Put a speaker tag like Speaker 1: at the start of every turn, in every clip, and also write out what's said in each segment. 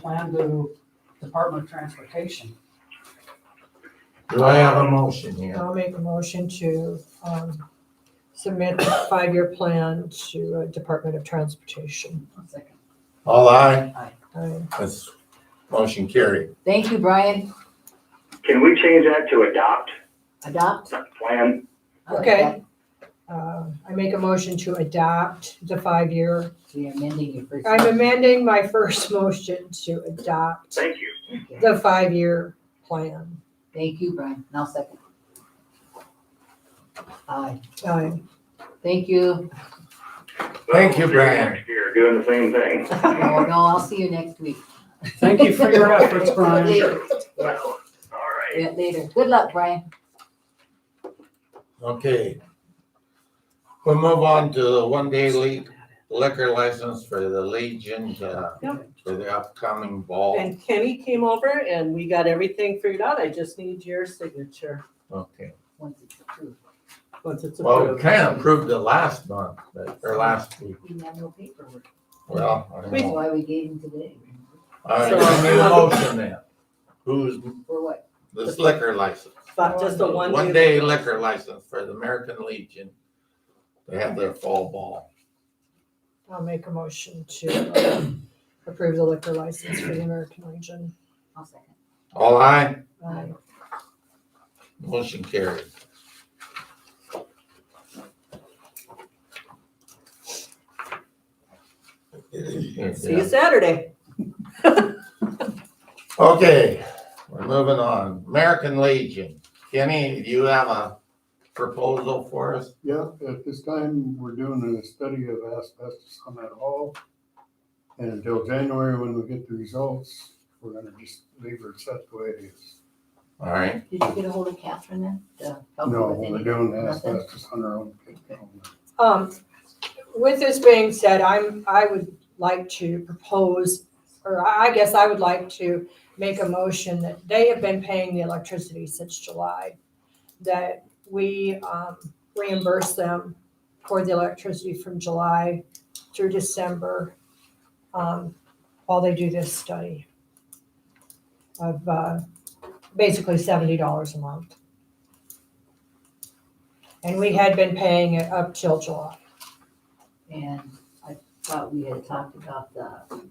Speaker 1: plan to Department of Transportation.
Speaker 2: Do I have a motion here?
Speaker 3: I'll make a motion to um, submit a five-year plan to uh, Department of Transportation.
Speaker 1: One second.
Speaker 2: All aye,
Speaker 3: I-
Speaker 2: that's motion carried.
Speaker 4: Thank you, Brian.
Speaker 5: Can we change that to adopt,
Speaker 4: Adopt.
Speaker 5: not plan?
Speaker 3: Okay. uh, I make a motion to adopt the five-year.
Speaker 4: So you're amending your first.
Speaker 3: I'm amending my first motion to adopt
Speaker 5: Thank you.
Speaker 3: the five-year plan.
Speaker 4: Thank you, Brian. Now second. Aye.
Speaker 3: I-
Speaker 4: Thank you.
Speaker 2: Thank you,
Speaker 5: Well, we'll see
Speaker 2: Brian.
Speaker 5: Next year, doing the same thing.
Speaker 4: Oh, no, I'll see you next week.
Speaker 1: Thank you for your efforts, Brian.
Speaker 4: Later.
Speaker 5: Well, all right.
Speaker 4: Yeah, Later. Good luck, Brian.
Speaker 2: Okay. We'll move on to the one-day le- liquor license for the Legion, uh,
Speaker 6: Yep.
Speaker 2: for the upcoming ball.
Speaker 6: And Kenny came over and we got everything figured out. I just need your signature
Speaker 2: Okay,
Speaker 4: Once it's approved.
Speaker 6: once it's
Speaker 2: well, we
Speaker 6: approved.
Speaker 2: kind of approved it last month, but, or last week,
Speaker 4: We have no paperwork.
Speaker 2: well, I don't
Speaker 4: That's
Speaker 2: know.
Speaker 4: why we gave him today.
Speaker 2: All right, I need a motion then. Who's
Speaker 4: For what?
Speaker 2: this liquor license?
Speaker 6: But just a one.
Speaker 2: One day liquor license for the American Legion. They have their fall ball.
Speaker 3: I'll make a motion to um, approve the liquor license for the American Legion.
Speaker 4: I'll second.
Speaker 2: All aye?
Speaker 3: I-
Speaker 2: Motion carried.
Speaker 6: See you Saturday.
Speaker 2: Okay, we're moving on. American Legion. Kenny, do you have a proposal for us?
Speaker 7: Yeah, at this time, we're doing a study of asbestos on that hall. And until January, when we get the results, we're gonna just leave it set the way it is.
Speaker 2: All right,
Speaker 4: Did you get a hold of Catherine then? to help you
Speaker 7: No,
Speaker 4: with
Speaker 7: we're
Speaker 4: any-
Speaker 7: doing
Speaker 4: nothing?
Speaker 7: asbestos on our own.
Speaker 3: Um, with this being said, I'm, I would like to propose, or I I guess I would like to make a motion that they have been paying the electricity since July, that we, um, reimburse them for the electricity from July through December, um, while they do this study of, uh, basically seventy dollars a month. And we had been paying it up till July.
Speaker 4: And I thought we had talked about the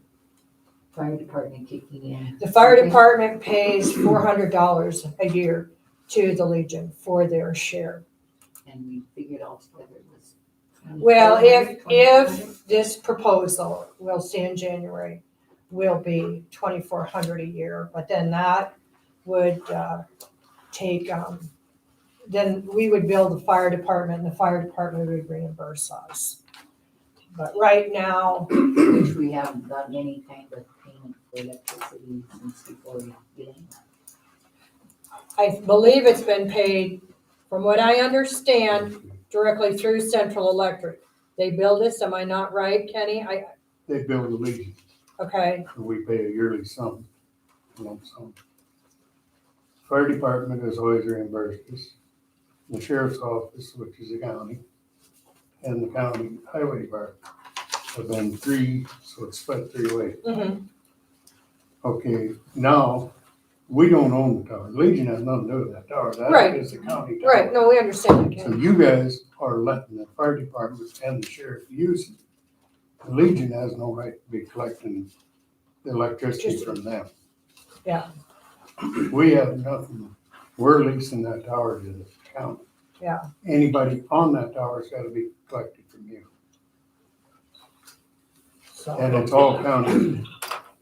Speaker 4: fire department kicking in.
Speaker 3: The fire
Speaker 4: Okay.
Speaker 3: department pays four hundred dollars a year to the Legion for their share.
Speaker 4: And we figured all together it was.
Speaker 3: Well,
Speaker 4: 2,400,
Speaker 3: if,
Speaker 4: 2,500.
Speaker 3: if this proposal, we'll see in January, will be twenty-four hundred a year, but then that would, uh, take, um, then we would bill the fire department and the fire department would reimburse us. But right now,
Speaker 4: Which we haven't gotten any kind of payment for electricity since before we began.
Speaker 3: I believe it's been paid, from what I understand, directly through Central Electric. They build this, am I not right, Kenny? I,
Speaker 7: They build a legion,
Speaker 3: okay,
Speaker 7: and we pay a yearly sum, lump sum. Fire department is always reimbursed us. The sheriff's office, which is the county, and the county highway department have been three, so it's split three ways.
Speaker 3: mhm,
Speaker 7: Okay, now, we don't own the tower. Legion has nothing to do with that tower.
Speaker 3: Right.
Speaker 7: That is the county tower.
Speaker 3: right, no, we understand,
Speaker 7: So
Speaker 3: Kenny.
Speaker 7: you guys are letting the fire department and the sheriff use it. The Legion has no right to be collecting the electricity from them.
Speaker 3: Yeah.
Speaker 7: We have nothing. We're leasing that tower to the county.
Speaker 3: Yeah.
Speaker 7: Anybody on that tower's gotta be collected from you. And
Speaker 3: So,
Speaker 7: it's all county.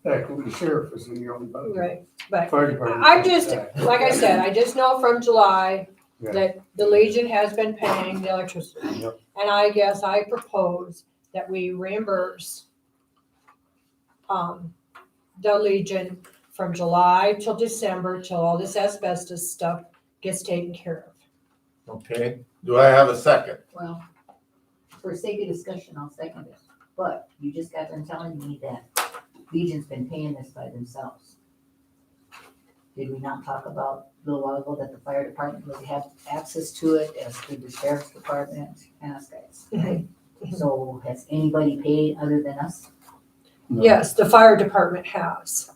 Speaker 7: Heck, the sheriff is in your own budget.
Speaker 3: right, but
Speaker 7: Fire department.
Speaker 3: I just, like I said, I just know from July
Speaker 7: Yeah.
Speaker 3: that the Legion has been paying the electricity.
Speaker 7: Yep.
Speaker 3: And I guess I propose that we reimburse um, the Legion from July till December, till all this asbestos stuff gets taken care of.
Speaker 2: okay. Do I have a second?
Speaker 4: Well, for sake of discussion, I'll second it, but you just got done telling me that Legion's been paying this by themselves. Did we not talk about a little while ago that the fire department would have access to it as did the sheriff's department and us guys, right? So has anybody paid other than us?
Speaker 7: No.
Speaker 3: Yes, the fire department has.